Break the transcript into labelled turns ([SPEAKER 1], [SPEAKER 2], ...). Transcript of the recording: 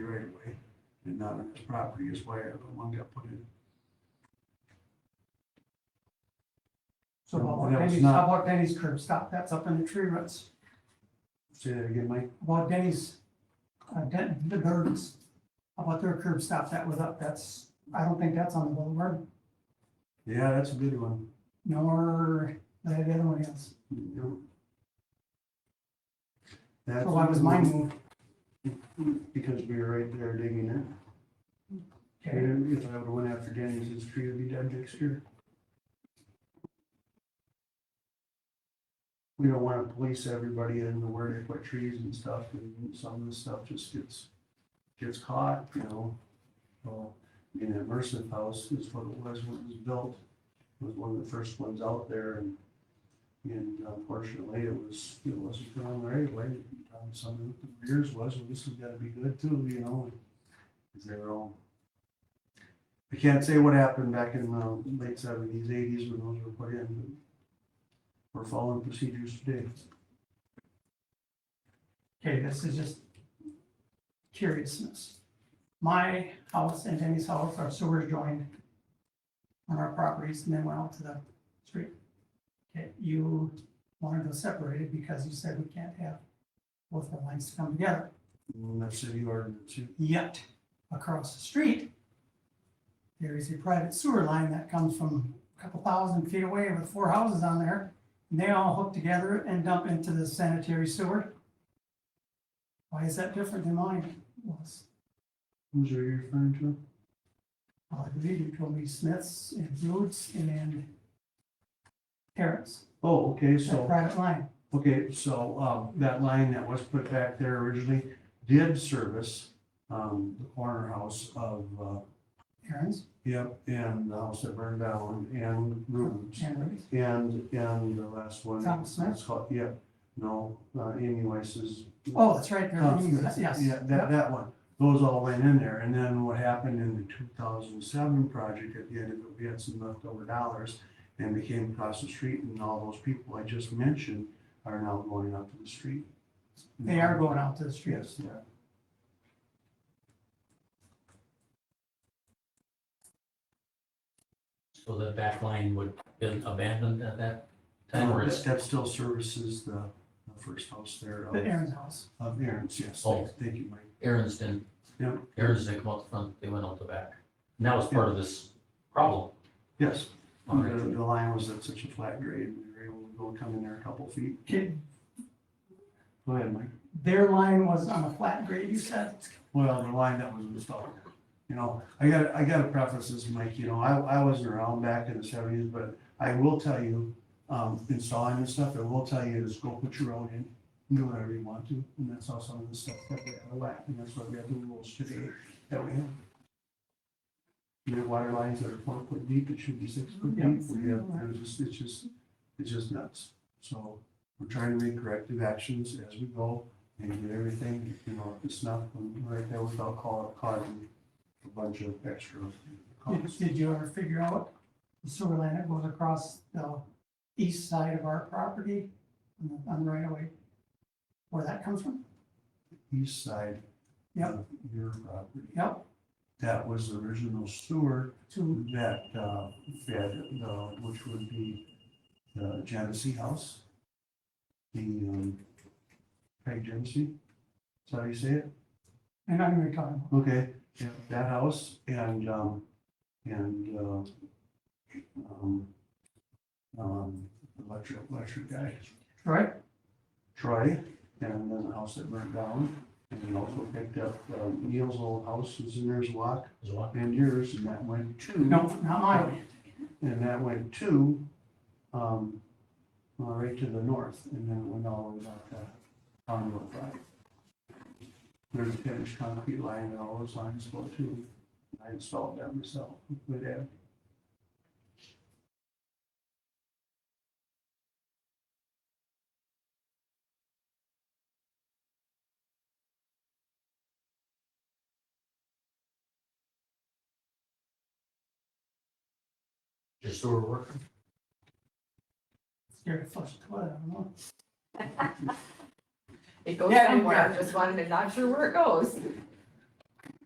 [SPEAKER 1] of way and not on his property is where the one got put in.
[SPEAKER 2] So
[SPEAKER 1] No,
[SPEAKER 2] about
[SPEAKER 1] that was
[SPEAKER 2] Denny's,
[SPEAKER 1] not-
[SPEAKER 2] how about Denny's curb stop? That's up in the tree roots.
[SPEAKER 1] Say that again, Mike?
[SPEAKER 2] About Denny's, uh, Den- the Burdens, about their curb stop that was up, that's, I don't think that's on the boulevard,
[SPEAKER 1] Yeah, that's a good one.
[SPEAKER 2] nor the the other one is.
[SPEAKER 1] Yep. That's.
[SPEAKER 2] So why was mine moved?
[SPEAKER 1] Because we were right there digging it.
[SPEAKER 2] Okay,
[SPEAKER 1] And if I would've went after Denny's, his tree would be dead next year. We don't wanna police everybody into where they put trees and stuff, and some of this stuff just gets, gets caught, you know? Well, in that Mercer house is what it was when it was built, It was one of the first ones out there, and, and unfortunately, it was, it wasn't drawn the right way. Um, Some of the years was, well, this has gotta be good too, you know? Cause they were all I can't say what happened back in the late seventies, eighties when those were put in. but We're following procedures today.
[SPEAKER 2] okay, this is just curiousness. My house and Denny's house are sewer joined on our properties and then went out to the street. Okay, you wanted to separate it because you said we can't have both the lines to come together.
[SPEAKER 1] And Mm, that's city ordinance.
[SPEAKER 2] Yet, across the street, there is a private sewer line that comes from a couple thousand feet away with four houses on there. And they all hook together and dump into the sanitary sewer. Why is that different than mine was?
[SPEAKER 1] Who's are you referring to?
[SPEAKER 2] Well, I believe you told me Smith's and Roots and Terrace,
[SPEAKER 1] Oh, okay,
[SPEAKER 2] that
[SPEAKER 1] so,
[SPEAKER 2] private line.
[SPEAKER 1] okay, so, um, that line that was put back there originally did service, um, the corner house of, uh,
[SPEAKER 2] Aaron's
[SPEAKER 1] yep, and the house that burned down and Rubens.
[SPEAKER 2] and Roots.
[SPEAKER 1] And, and the last one.
[SPEAKER 2] Tom Smith?
[SPEAKER 1] it's called- Yeah, no, uh, Amy Weiss's.
[SPEAKER 2] Oh, that's right, there,
[SPEAKER 1] Oh,
[SPEAKER 2] yes,
[SPEAKER 1] yeah,
[SPEAKER 2] yes.
[SPEAKER 1] Yeah, that, that one, those all went in there, and then what happened in the two thousand seven project, at the end of it, we had some leftover dollars. And we came across the street, and all those people I just mentioned are now going out to the street.
[SPEAKER 2] They are going out to the street.
[SPEAKER 1] Yes, they are.
[SPEAKER 3] So the back line would been abandoned at that time or
[SPEAKER 1] That-
[SPEAKER 3] it's,
[SPEAKER 1] That still services the, the first house there
[SPEAKER 2] The
[SPEAKER 1] of,
[SPEAKER 2] Aaron's house.
[SPEAKER 1] of Aaron's, yes,
[SPEAKER 3] Oh.
[SPEAKER 1] thank you, Mike.
[SPEAKER 3] Aaron's didn't,
[SPEAKER 1] Yeah.
[SPEAKER 3] Aaron's didn't come out the front, they went out the back. And that was part of this problem.
[SPEAKER 1] Yes,
[SPEAKER 3] All right.
[SPEAKER 1] the, the line was at such a flat grade, we were able to go come in there a couple feet.
[SPEAKER 2] Okay,
[SPEAKER 1] Go ahead, Mike.
[SPEAKER 2] Their line was on a flat grade, you said?
[SPEAKER 1] Well, the line that was installed, you know, I gotta, I gotta preface this, Mike, you know, I, I wasn't around back in the seventies, but I will tell you, um, installing this stuff, I will tell you is go put your own in, do whatever you want to, and that's how some of the stuff that we have lacked, and that's why we have the rules today that we have. We have water lines that are four foot deep, it should be six foot
[SPEAKER 2] Yeah.
[SPEAKER 1] deep, we have, there's just, it's just, it's just nuts. So, we're trying to make corrective actions as we go, and get everything, you know, it's not right there without cau- causing a bunch of extra
[SPEAKER 2] Did,
[SPEAKER 1] costs.
[SPEAKER 2] did you ever figure out the sewer line that goes across the east side of our property on the- on the right of way? Where that comes from?
[SPEAKER 1] East side of
[SPEAKER 2] Yep.
[SPEAKER 1] your property,
[SPEAKER 2] Yep,
[SPEAKER 1] that was the original sewer
[SPEAKER 2] to,
[SPEAKER 1] that, uh, fed, uh, which would be the Genesee House. The, um, Craig Genesee, is that how you say it?
[SPEAKER 2] and I'm gonna talk about,
[SPEAKER 1] Okay, yeah, that house and, um, and, uh, um, um, electric, electric guy,
[SPEAKER 2] right?
[SPEAKER 1] Troy, and then the house that burnt down. And we also picked up uh, Neil's old house, was in there's lock,
[SPEAKER 3] Is what?
[SPEAKER 1] and yours, and that went to.
[SPEAKER 2] No, not mine.
[SPEAKER 1] And that went to, um, uh, right to the north, and then it went all the way back to on Road Five. There's a finished concrete line and all those lines go to, I installed that myself, uh, with that.
[SPEAKER 3] Your sewer work?
[SPEAKER 2] Scared to flush the toilet, I don't know.
[SPEAKER 4] It goes
[SPEAKER 2] Yeah,
[SPEAKER 4] somewhere,
[SPEAKER 2] yeah.
[SPEAKER 4] just wanted to not sure where it goes.